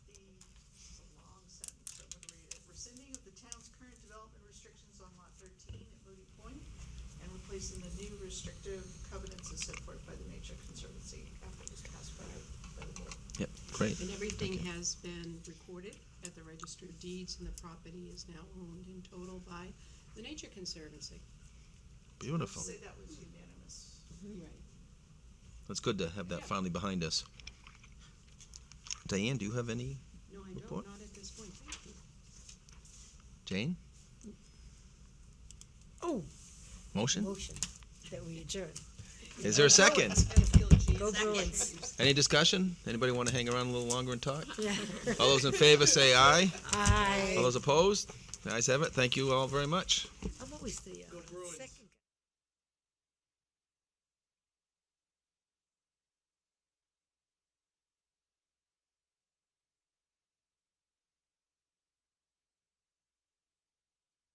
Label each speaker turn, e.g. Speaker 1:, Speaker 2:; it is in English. Speaker 1: restrictive covenants as set forth by the Nature Conservancy after it was passed by, by the board.
Speaker 2: Yep, great.
Speaker 3: And everything
Speaker 2: Okay.
Speaker 3: has been recorded at the Register of Deeds, and the property is now owned in total by the Nature Conservancy.
Speaker 2: Beautiful.
Speaker 1: Say that was unanimous.
Speaker 2: Mm-hmm.
Speaker 3: Right.
Speaker 2: It's good to have that
Speaker 3: Yeah.
Speaker 2: finally behind us. Diane, do you have any?
Speaker 3: No, I don't,
Speaker 2: Report.
Speaker 3: not at this point, thank you.
Speaker 2: Jane?
Speaker 4: Oh,
Speaker 2: Motion?
Speaker 4: motion that we adjourn.
Speaker 2: Is there a second?
Speaker 4: Go Bruins.
Speaker 2: Any discussion? Anybody want to hang around a little longer and talk?
Speaker 4: Yeah.
Speaker 2: All those in favor say aye.
Speaker 4: Aye.
Speaker 2: All those opposed? The ayes have it. Thank you all very much.
Speaker 4: I'm always the uh, second.